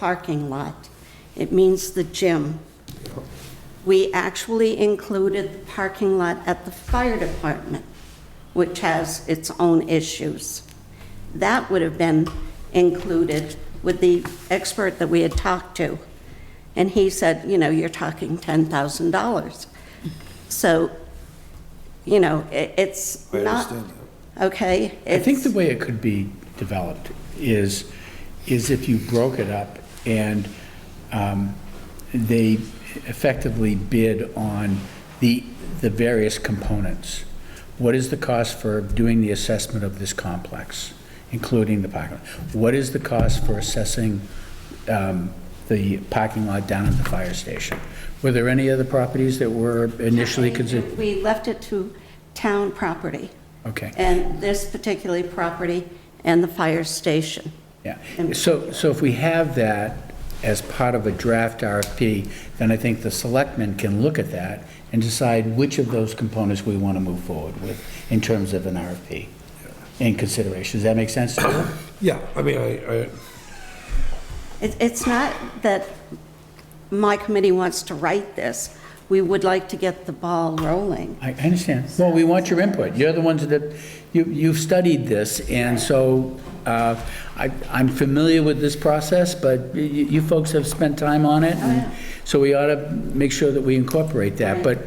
parking lot. It means the gym. We actually included the parking lot at the fire department, which has its own issues. That would have been included with the expert that we had talked to. And he said, you know, you're talking $10,000. So, you know, i- it's I not, understand okay? I think the it's- way it could be developed is, is if you broke it up and um, they effectively bid on the, the various components. What is the cost for doing the assessment of this complex, including the parking? lot? What is the cost for assessing um, the parking lot down at the fire station? Were there any other properties that were initially considered? We left it to town property. Okay. And this particular property and the fire station. Yeah, And- so, so if we have that as part of a draft RFP, then I think the selectmen can look at that and decide which of those components we want to move forward with in terms of an RFP in consideration. Does that make sense to you? Yeah, I mean, I, I, It- It's not that my committee wants to write this. We would like to get the ball rolling. I I understand. Well, we want your input. You're the ones that, you, you've studied this, and so uh, I, I'm familiar with this process, but you, you folks have spent time on Oh, it, and so we ought to make sure that we incorporate that. But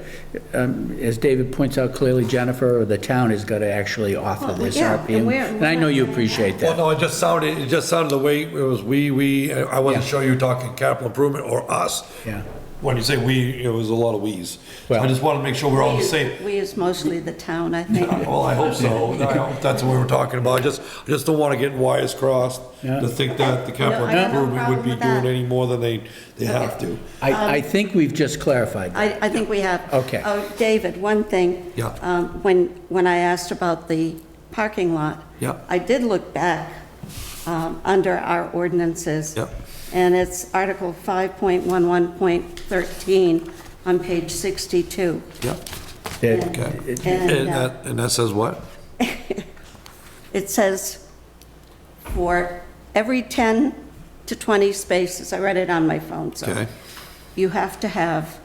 um, as David points out clearly, Jennifer or the town has got to actually offer Well, this yeah, RP, and and we're- and I know you appreciate well, that. no, it just sounded, it just sounded the way it was we, we, I wasn't Yeah. sure you were talking capital improvement or us. Yeah. When you say we, it was a lot of we's. So I Well- just wanted to make sure we're all the same. We is mostly the town, I think. Well, I hope so. I hope that's what we were talking about. I just, I just don't want to get wires crossed Yeah. to think that the No, capital I have no improvement would be problem with doing that. any more than they, they have to. I, I um, think we've just clarified that. I, I think we have. Okay. Oh, David, one thing. Yeah. Um, When, when I asked about the parking lot. Yeah. I did look back um, under our ordinances. Yeah. And it's Article 5.11.13 on page 62. Yeah, uh, That- okay. And, And uh, that, and that says what? It says for every 10 to 20 spaces, I read it on my phone, so Okay. you have to have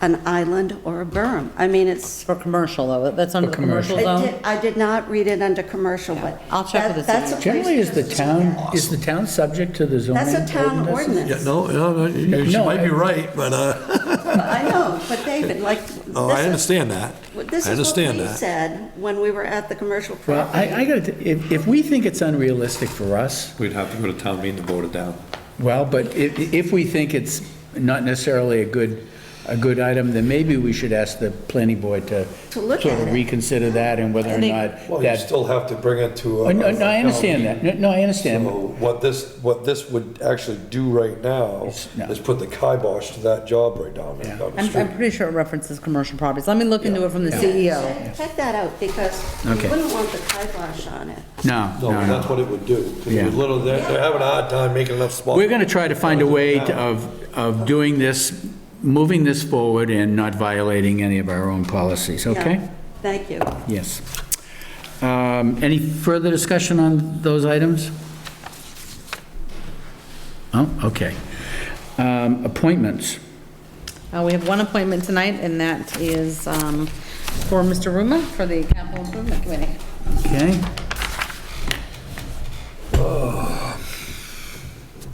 an island or a berm. I mean, it's, For commercial, though, that's under the commercial I zone? did- I did not read it under commercial, but. I'll check with the that- that's city. a Generally, is the place- town, is the town subject to the zoning? That's a town ordinances? Yeah, ordinance. no, no, no, you you No, might be I- right, but, uh, I know, but David, like. no, this Oh, I is- understand that. This I is what understand we that. said when we were at the commercial Well, I, property. I gotta, if, if we think it's unrealistic for us, We'd have to go to town meeting to vote it down. well, but if, if we think it's not necessarily a good, a good item, then maybe we should ask the planning board to To look sort at of it. reconsider that and whether or think- not Well, you that. still have to bring it to. Oh, a- No, no, I a town understand meeting. that. No, No, I understand. So what this, what this would actually do right now no. is put the kibosh to that job right down there. down the I'm, street. I'm pretty sure it references commercial properties. Let me look into it from the E CEO. E Check check that out, because you Okay. wouldn't want the kibosh on it. No, No, no, that's no. what it would do. 'cause Yeah. you little, they're, they're having a hard time making enough spots. We're gonna try to find a way to- of, of doing this, moving this forward and not violating any of our own policies, Yeah. okay? Thank you. Yes. Um, Any further discussion on those items? Oh, okay. Um, Appointments. Uh, we have one appointment tonight, and that is, um, for Mr. Ruma for the Capital Improvement Committee. Okay,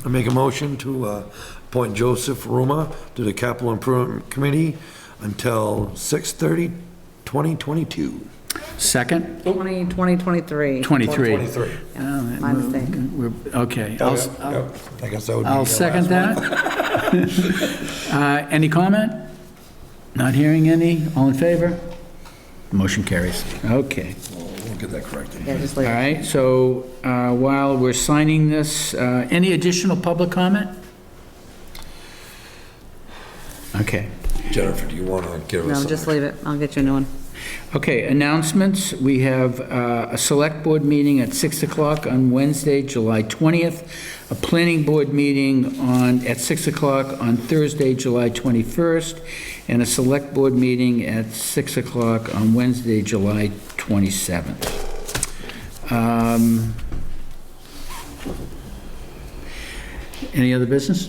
I make a motion to uh, appoint Joseph Ruma to the Capital Improvement Committee until 6:30, 2022. second, Twenty, twenty, twenty-three. 23. 23. My mistake. We're- Okay, Oh, I'll, yeah, s- yeah. I guess that would be. the I'll last second one. that. Uh, Any comment? Not hearing any? All in favor? Motion carries. Okay. We'll get that corrected. Yeah, just All leave it. right, so uh, while we're signing this, uh, any additional public comment? Okay, Jennifer, do you want to give us? No, an- just leave it. I'll get you a new one. okay, announcements. We have uh, a select board meeting at 6 o'clock on Wednesday, July 20th, a planning board meeting on, at 6 o'clock on Thursday, July 21st, and a select board meeting at 6 o'clock on Wednesday, July 27th. Um, Any other business?